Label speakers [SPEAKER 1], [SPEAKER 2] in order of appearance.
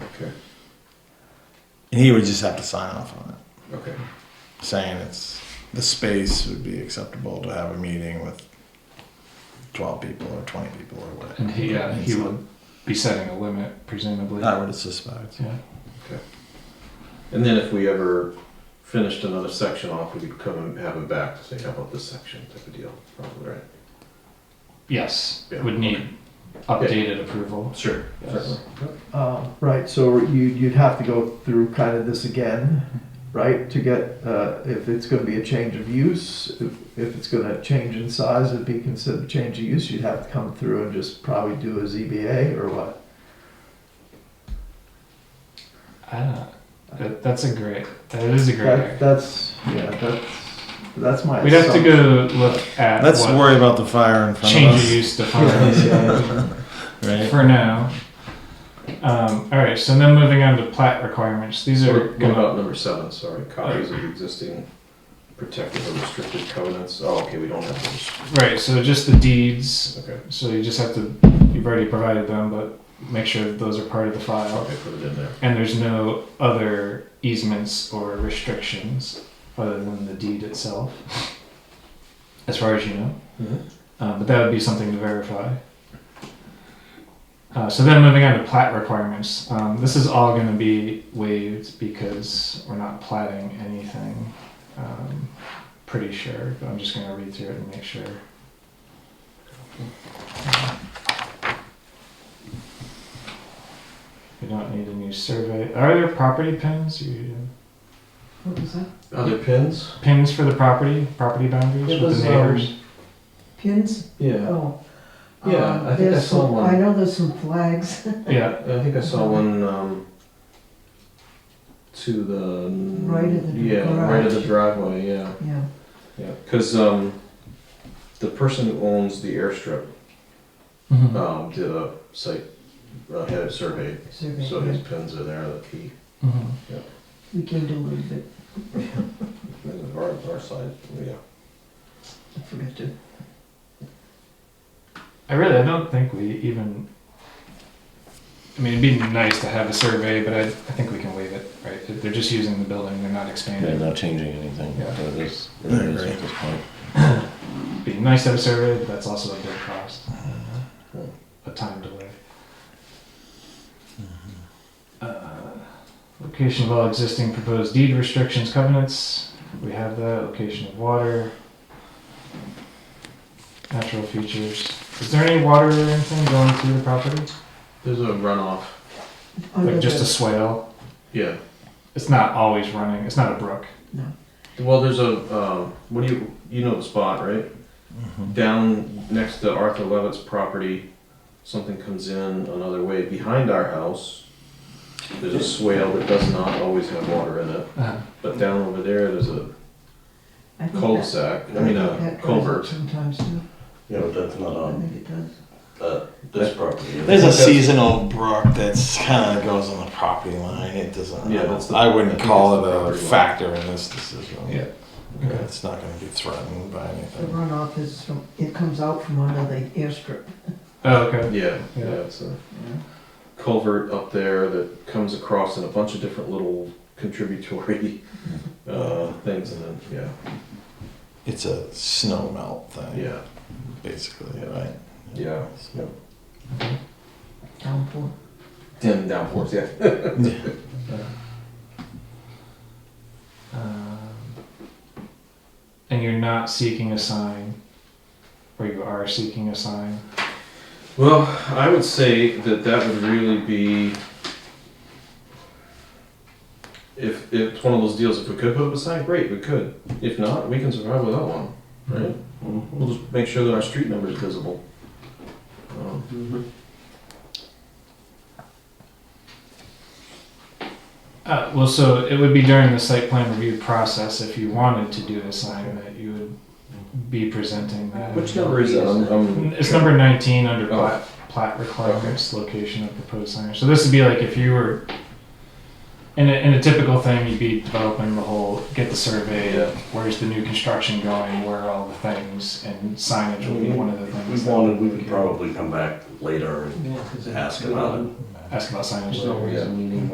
[SPEAKER 1] Okay,
[SPEAKER 2] And he would just have to sign off on it,
[SPEAKER 1] okay.
[SPEAKER 2] saying it's, the space would be acceptable to have a meeting with twelve people or twenty people or whatever.
[SPEAKER 3] And he, uh, he
[SPEAKER 2] So,
[SPEAKER 3] would be setting a limit, presumably.
[SPEAKER 2] I would suspect.
[SPEAKER 3] Yeah.
[SPEAKER 1] And then if we ever finished another section off, we could come and have him back to say, how about this section type of deal, probably, right?
[SPEAKER 3] Yes,
[SPEAKER 1] Yeah,
[SPEAKER 3] would need updated approval.
[SPEAKER 1] Sure.
[SPEAKER 3] Yes.
[SPEAKER 1] Certainly.
[SPEAKER 4] Uh, Right, so you, you'd have to go through kind of this again, right, to get, uh, if it's gonna be a change of use, if, if it's gonna change in size, it'd be considered a change of use, you'd have to come through and just probably do a ZBA or what?
[SPEAKER 3] I don't, Ah, that, that's a great, that is a great
[SPEAKER 4] That,
[SPEAKER 3] idea.
[SPEAKER 4] that's, yeah, that's, that's my.
[SPEAKER 3] We'd have to
[SPEAKER 4] assumption.
[SPEAKER 3] go look at
[SPEAKER 2] Let's
[SPEAKER 3] what
[SPEAKER 2] worry about the fire in front
[SPEAKER 3] change of
[SPEAKER 2] of us,
[SPEAKER 3] use defines
[SPEAKER 4] Yeah,
[SPEAKER 2] right?
[SPEAKER 3] for now. Um, all right, so then moving on to plat requirements. These are
[SPEAKER 1] What
[SPEAKER 3] going
[SPEAKER 1] about number seven, sorry, copies of existing protective or restricted covenants? Oh, okay, we don't have those,
[SPEAKER 3] right. So just the deeds.
[SPEAKER 1] okay.
[SPEAKER 3] So you just have to. You've already provided them, but make sure that those are part of the file.
[SPEAKER 1] Okay, put it in there.
[SPEAKER 3] And there's no other easements or restrictions other than the deed itself, as far as you know.
[SPEAKER 1] Mm-hmm.
[SPEAKER 3] Uh, but that would be something to verify. Uh, so then moving on to plat requirements. Um, this is all going to be waived because we're not platting anything. Um, pretty sure, but I'm just going to read through it and make sure. We don't need a new survey. Are there property pins? You-
[SPEAKER 5] What was that?
[SPEAKER 1] Other pins?
[SPEAKER 3] Pins for the property, property
[SPEAKER 1] Yeah,
[SPEAKER 3] boundaries with
[SPEAKER 1] those,
[SPEAKER 3] the
[SPEAKER 1] um,
[SPEAKER 3] neighbors?
[SPEAKER 5] Pins?
[SPEAKER 1] Yeah,
[SPEAKER 5] Oh.
[SPEAKER 1] Yeah,
[SPEAKER 5] Um,
[SPEAKER 1] I think I
[SPEAKER 5] there's
[SPEAKER 1] saw
[SPEAKER 5] some-
[SPEAKER 1] one.
[SPEAKER 5] I know there's some flags.
[SPEAKER 3] Yeah,
[SPEAKER 1] I think I saw one, um, to the.
[SPEAKER 5] Right of the
[SPEAKER 1] Yeah, right of the
[SPEAKER 5] garage.
[SPEAKER 1] driveway, yeah.
[SPEAKER 5] Yeah.
[SPEAKER 1] Yeah, because um, the person who owns the airstrip
[SPEAKER 5] Mm-hmm.
[SPEAKER 3] Mhm.
[SPEAKER 1] um, did a site uh, had a survey,
[SPEAKER 5] survey.
[SPEAKER 1] so his pins are there. The key
[SPEAKER 3] Mhm.
[SPEAKER 5] We can do a little bit.
[SPEAKER 1] and our, our side, yeah.
[SPEAKER 5] I forgot to.
[SPEAKER 3] I really, I don't think we even. I mean, it'd be nice to have a survey, but I, I think we can waive it, right? If They're just using the building, they're not
[SPEAKER 6] They're
[SPEAKER 3] expanding.
[SPEAKER 6] not changing anything.
[SPEAKER 3] Yeah.
[SPEAKER 6] It is, it
[SPEAKER 2] I
[SPEAKER 6] is
[SPEAKER 2] agree.
[SPEAKER 6] at this point.
[SPEAKER 3] It'd be nice to have a survey, but that's also a big cost. A time delay. Uh, Location of all existing proposed deed restrictions, covenants, we have that, location of water. Natural features. Is there any water or anything going through the property?
[SPEAKER 1] There's a runoff.
[SPEAKER 5] under
[SPEAKER 3] Like just a
[SPEAKER 5] the-
[SPEAKER 3] swale?
[SPEAKER 1] Yeah.
[SPEAKER 3] It's not always running. It's not a brook.
[SPEAKER 1] Well, there's a um, what do you you know the spot right
[SPEAKER 6] Mm-hmm.
[SPEAKER 1] down next to Arthur Levitt's property. Something comes in another way behind our house. There's a swale that does not always have water in it, but down over there there's a
[SPEAKER 5] I think that-
[SPEAKER 1] cul-de-sac. I mean
[SPEAKER 5] think
[SPEAKER 1] a
[SPEAKER 5] that comes up
[SPEAKER 1] culvert. Um,
[SPEAKER 5] Sometimes too.
[SPEAKER 6] Yeah, but that's not
[SPEAKER 5] I
[SPEAKER 6] on
[SPEAKER 5] think it does.
[SPEAKER 6] uh, this property.
[SPEAKER 2] There's a seasonal brook that's kind of goes on the property line. It doesn't.
[SPEAKER 1] Yeah, that's the-
[SPEAKER 2] I wouldn't
[SPEAKER 1] I think
[SPEAKER 2] call
[SPEAKER 1] that's the
[SPEAKER 2] it a
[SPEAKER 1] property line.
[SPEAKER 2] factor in this decision.
[SPEAKER 3] Yeah.
[SPEAKER 2] Okay, It's not going to be threatened by
[SPEAKER 5] The
[SPEAKER 2] anything.
[SPEAKER 5] runoff is from, it comes out from under the airstrip.
[SPEAKER 3] Oh, okay.
[SPEAKER 1] Yeah, yeah,
[SPEAKER 3] Yeah.
[SPEAKER 1] it's a culvert up there that comes across in a bunch of different little contributory uh, things, and then
[SPEAKER 2] It's a snow melt
[SPEAKER 1] yeah,
[SPEAKER 2] thing,
[SPEAKER 1] yeah,
[SPEAKER 2] basically,
[SPEAKER 1] Yeah.
[SPEAKER 2] right?
[SPEAKER 1] yeah.
[SPEAKER 2] So-
[SPEAKER 5] Downpour.
[SPEAKER 1] Dim downforce, yeah.
[SPEAKER 3] Um, and you're not seeking a sign, or you are seeking a sign.
[SPEAKER 1] Well, I would say that that would really be. If, if it's one of those deals, if we could put up a sign, great, we could. If not, we can survive without one, right? Mm-hmm. We'll just make sure that our street number is visible. Um,
[SPEAKER 3] Uh, well, so it would be during the site plan review process if you wanted to do a sign that you would be presenting that.
[SPEAKER 1] Which number is that? I'm- I'm-
[SPEAKER 3] It's number 19 under
[SPEAKER 1] Oh.
[SPEAKER 3] plat, plat requirements, location of proposed signage. So this would be like if you were, in a, in a typical thing, you'd be developing the whole, get the survey,
[SPEAKER 1] Yeah.
[SPEAKER 3] where's the new construction going, where are all the things, and signage would be
[SPEAKER 1] Mm-hmm.
[SPEAKER 3] one of the
[SPEAKER 6] We
[SPEAKER 3] things. that
[SPEAKER 6] wanted, we
[SPEAKER 3] could
[SPEAKER 6] would probably come back later and ask about it.
[SPEAKER 3] Ask about signage.
[SPEAKER 1] yeah.